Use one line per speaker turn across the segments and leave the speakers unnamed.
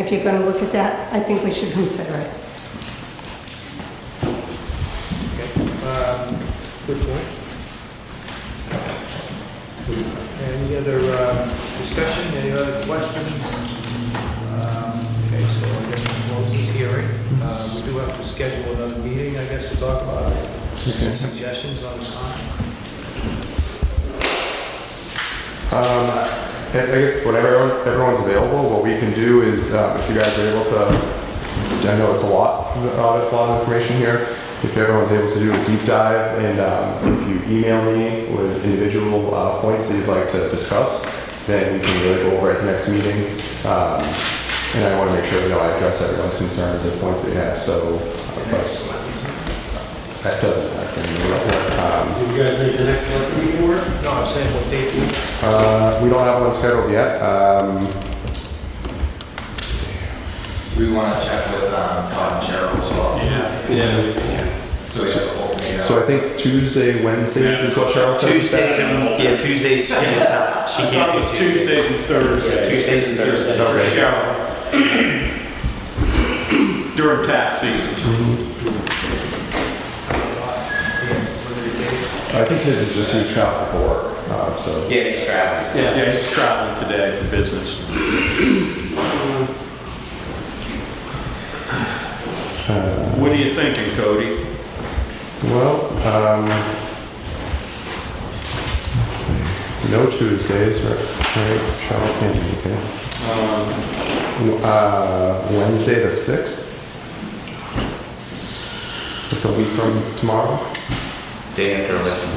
if you're going to look at that, I think we should consider it.
Um, Good point. Any other um, discussion, any other questions? Um, Okay, so I guess we'll close this hearing. Uh, We do have to schedule another meeting, I guess, to talk about it. Any Suggestions on the time?
Um, I I guess whatever everyone- everyone's available, what we can do is, um, if you guys are able to, I know it's a lot, a lot of- a lot of information here. If everyone's able to do a deep dive and um, if you email me with individual uh, points that you'd like to discuss, then we can really go over at the next meeting. Um, And I want to make sure, that I address everyone's concerns and points they have, so uh, but that doesn't happen. Um,
You guys make the next select meeting work?
No, I'm saying what date we
uh, We don't have one scheduled yet. Um,
Do we want to check with um, Todd and Cheryl as well?
Yeah. Yeah.
So we have a whole meeting.
So I think Tuesday, Wednesdays is what Cheryl said.
Tuesdays and, yeah, Tuesdays, she can't she can't do Tuesdays.
Tuesdays and Thursdays
Tuesdays and Thursdays.
for
Okay.
Cheryl. During tax season.
I think his is just his shop before, um, so.
Yeah, he's traveling.
Yeah, he's traveling today for business.
Uh,
What are you thinking, Cody?
Well, um, let's see. No Tuesdays, right? Right, Cheryl can't make it.
Um,
Uh, Wednesday the sixth. It's a week from tomorrow.
Day after election.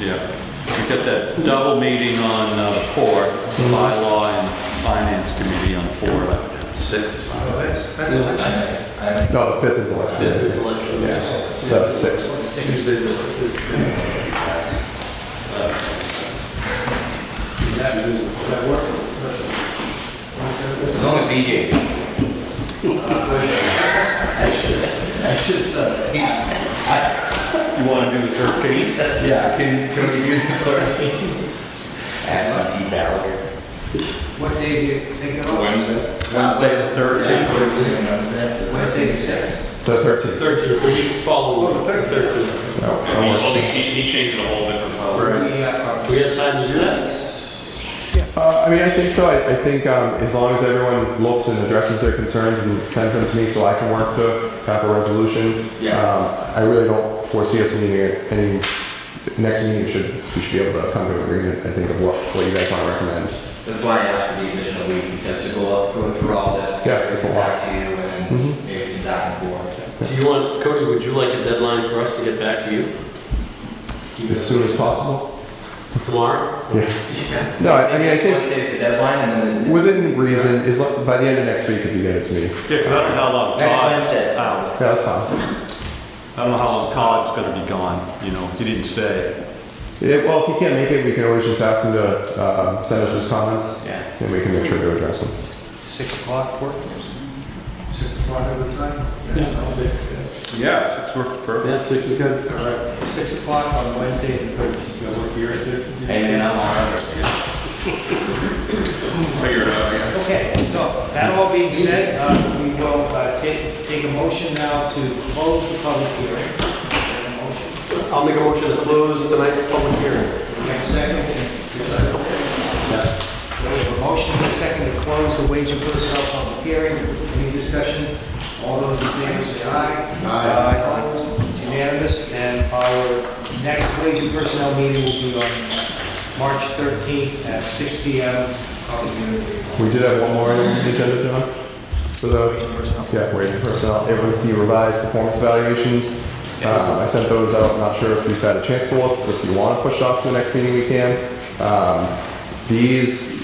Yeah, we got that double meeting on uh, the 4th,
Mm-hmm.
bylaw and finance committee on 4th.
Six is fine.
Oh, that's, that's election.
I- I-
No, the fifth is election. Fifth is election. Yeah, the sixth.
Tuesday is-
As long as DJ.
uh,
You want to do the 13th?
Yeah, can,
Can we do the thirteenth? Absentee ballot.
What day do you think of?
Wednesday?
Wednesday the 13th.
Thursday and Wednesday.
Wednesday, the sixth.
the thirteenth.
13, the week following.
Oh, the 13th.
Oh,
He, he he changed it a whole different color.
We have
Do we have time to do that?
Uh, I mean, I think so. I, I think um, as long as everyone looks and addresses their concerns and sends them to me so I can work to have a resolution.
Yeah.
Um, I really don't foresee us needing it- any, next meeting should, we should be able to come to an agreement, I think, of what, what you guys want to recommend.
That's why I asked for the additional week, because to go up, go through all this.
Yeah, it's a lot.
Back to you and then maybe some back and forth.
Do you want, Cody, would you like a deadline for us to get back to you?
As soon as possible?
Tomorrow?
Yeah. No, I, I mean, I think
Wednesday's the deadline and then.
within reason, is like, by the end of next week if you get it to me.
Yeah, 'cause I don't know how long
Next
Todd-
Wednesday.
I don't know.
Yeah, that's fine.
I don't know how long Todd's going to be gone, you know, he didn't say.
Yeah, well, if he can't make it, we can always just ask him to uh, send us his comments
Yeah.
and we can make sure to address them.
Six o'clock works? Six o'clock every time? Yeah. Six.
Yeah, it's worked
Yes,
perfect.
if you
All right, six o'clock on Wednesday and Thursday.
And then I'm on.
Figure it out, yeah.
Okay, so that all being said, uh, we will uh, take, take a motion now to close the public hearing. A Motion.
I'll make a motion to close tonight's public hearing.
We have a second. We have a motion and a second to close the wage and personnel public hearing. Any discussion? All those in favor say aye. Aye. Opposed? It's Unanimous, and our next wage and personnel meeting will be on March 13th at 6 PM. Public hearing.
We did have one more on the agenda, John, for
Wage
the,
and personnel.
yeah, wage and personnel. It was the revised performance evaluations. Um, I sent those out, not sure if you've had a chance to look, if you want to push it off to the next meeting, we can. Um, These,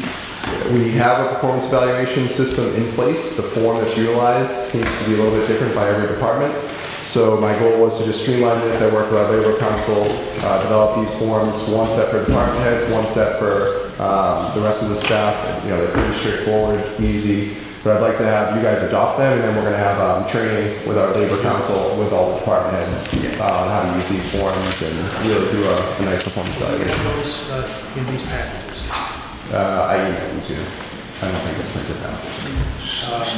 we have a performance evaluation system in place. The form that's utilized seems to be a little bit different by every department. So my goal was to just streamline this. I worked with our labor council, uh, developed these forms, one set for department heads, one set for um, the rest of the staff. You know, they're pretty straightforward, easy. But I'd like to have you guys adopt them, and then we're going to have um, training with our labor council, with all the department heads, uh, on how to use these forms and really do a a nice performance
We
evaluation.
have those uh, in these packages.
Uh, I emailed you. I don't think it's printed out.
Um,